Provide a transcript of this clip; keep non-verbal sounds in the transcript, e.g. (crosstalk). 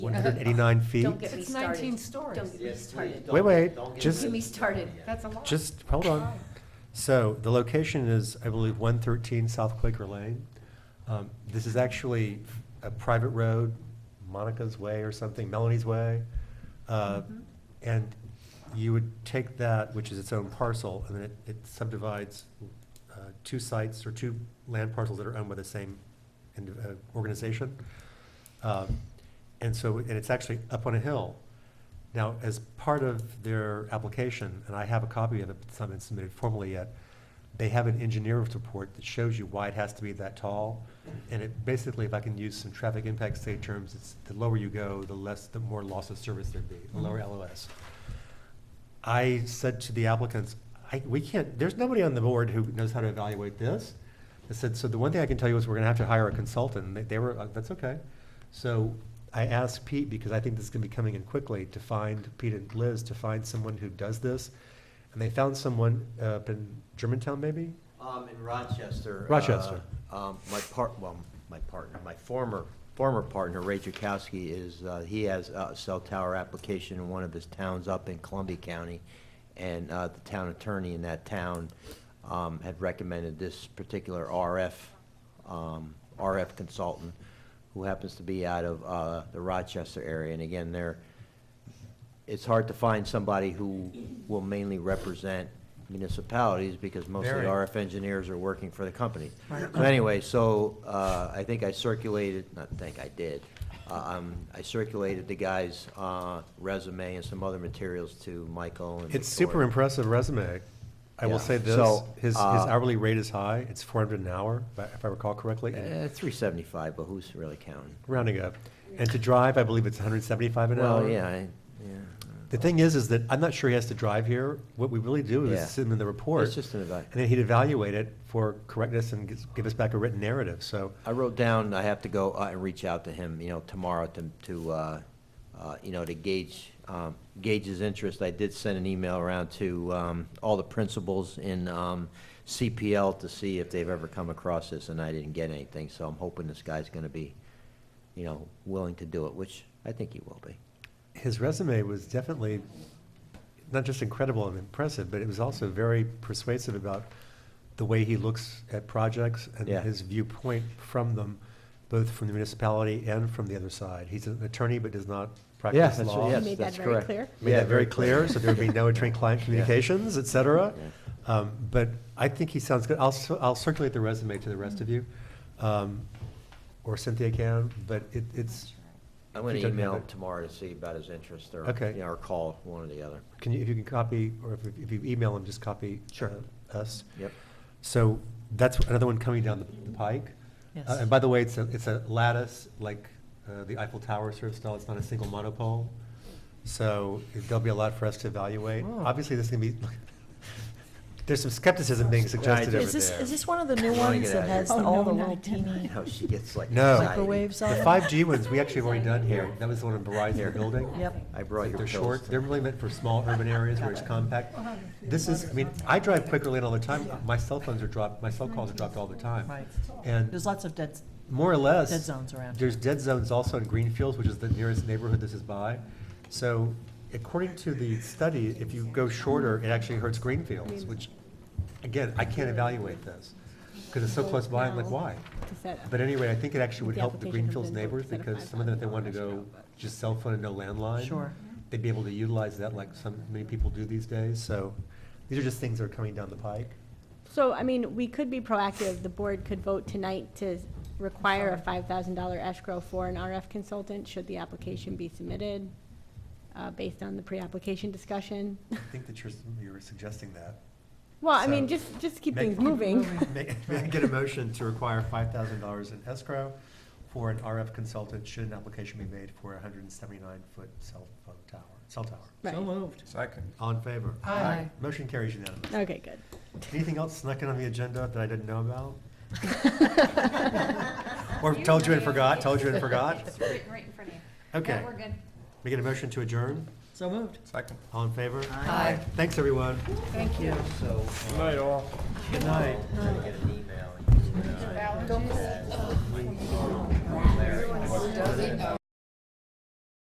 189 feet? oh, Don't get me It's started. 19 stories. Don't get me started. Wait, wait, just- Get me started. That's a lot. Just, hold on. So the location is, I believe, 113 South Quaker Lane. Um, This is actually a private road, Monica's Way or something, Melanie's Way. Uh, Mhm. And you would take that, which is its own parcel, and then it- it subdivides uh, two sites or two land parcels that are owned by the same indi- uh, organization. Um, And so, and it's actually up on a hill. Now, as part of their application, and I have a copy of it, but it's not been submitted formally yet, they have an engineer's report that shows you why it has to be that tall. And it, basically, if I can use some traffic impact study terms, it's the lower you go, the less, the more loss of service there'd be, the lower LOS. I said to the applicants, I, we can't, there's nobody on the board who knows how to evaluate this. I said, so the one thing I can tell you is we're gonna have to hire a consultant, and they, they were, uh, that's okay. So I asked Pete, because I think this is gonna be coming in quickly, to find, Pete and Liz, to find someone who does this. And they found someone uh, up in Germantown, maybe? Um, in Rochester. Rochester. uh, Um, my part, well, my partner, my former, former partner, Ray Jukowski is, uh, he has a cell tower application in one of his towns up in Columbia County. And, uh, the town attorney in that town, um, had recommended this particular RF, um, RF consultant who happens to be out of, uh, the Rochester area. And again, they're, it's hard to find somebody who will mainly represent municipalities because most of the Very. RF engineers are working for the company. So anyway, so uh, I think I circulated, not think, I did. Uh, um, I circulated the guy's uh, resume and some other materials to Michael and. It's super Victoria. impressive resume. I will Yeah. say this, So, his, his uh, hourly rate is high, it's four hundred an hour, if I- if I recall correctly, and Eh, 375, but who's really counting? rounding up. And to drive, I believe it's hundred and seventy-five an hour. Well, yeah, I- yeah. uh. The thing is, is that I'm not sure he has to drive here. What we really do Yeah. is send him the report. It's just an evaluation. And then he'd evaluate it for correctness and gi- give us back a written narrative, so. I wrote down, I have to go uh, and reach out to him, you know, tomorrow to, to, uh, uh, you know, to gauge, um, gauge his interest. I did send an email around to, um, all the principals in, um, CPL to see if they've ever come across this, and I didn't get anything, so I'm hoping this guy's gonna be, you know, willing to do it, which I think he will be. His resume was definitely not just incredible and impressive, but it was also very persuasive about the way he looks at projects and Yeah. his viewpoint from them, both from the municipality and from the other side. He's an attorney but does not practice that's- law. yes, You made that that's very correct. clear. Made Yeah, that very clear, so there would be (laughs) no attorney-client communications, et cetera. Yeah. Um, But I think he sounds good. I'll, cir- I'll circulate the resume to the rest of you, um, or Cynthia can, but it, it's, I'm gonna He doesn't have email him it. tomorrow to see about his interest, or, Okay. you know, or call, one or the other. can you, if you can copy, or if- if you email him, just copy Sure. uh, us. Yep. So that's another one coming down the- the pike. Yes. Uh, And by the way, it's a, it's a lattice, like uh, the Eiffel Tower sort of style, it's not a single monopole. So there'll be a lot for us to evaluate. Oh. Obviously, this is gonna be, (laughs) there's some skepticism being suggested Right, over Is this, there. is this one of the I new wanna ones get out that of here. has Oh, all no, the not little done. You teeny? know, she gets like. No. anxiety. Microwaves on? The five G ones, we actually have already done here. That was the one in Here. Verizon building. (laughs) Yep. I brought Like your they're pills. short, they're really meant for small urban areas where it's compact. This is, I mean, I drive Quaker Lane all the time. My cell phones are dropped, my cell calls are dropped all the time. Right. And There's lots of dead, more or less. Dead zones around. There's dead zones also in Greenfields, which is the nearest neighborhood this is by. So according to the study, if you go shorter, it actually hurts Greenfields, which, again, I can't evaluate this, because it's so close by, I'm like, why? But anyway, I think it actually would The help the application Greenfields comes in for neighbors, set of because five some of them, if they thousand wanted to dollars, go you know, but- just cell phone and no landline. Sure. They'd be able to utilize that like so many people do these days, so these are just things that are coming down the pike. So, I mean, we could be proactive. The board could vote tonight to require a five thousand dollar escrow for an RF consultant, should the application be submitted, uh, based on the pre-application (laughs) discussion. I think that you're, you're suggesting that. Well, I mean, So- just, just keep Make- things moving. (laughs) May may I get a motion to require five thousand dollars in escrow for an RF consultant should an application be made for a hundred and seventy-nine foot cell phone tower, cell tower? Right. so moved. Second. All in favor? Aye. Motion carries unanimously. Okay, good. Anything else snuck in on the agenda that I didn't know about? Or told you and forgot, told you and forgot? It's written right in front of you. Okay. No, we're good. We get a motion to adjourn? So moved. Second. All in favor? Aye. Thanks, everyone. uh, Thank you. So, Night all. Good night. I'm gonna get an email. and- Don't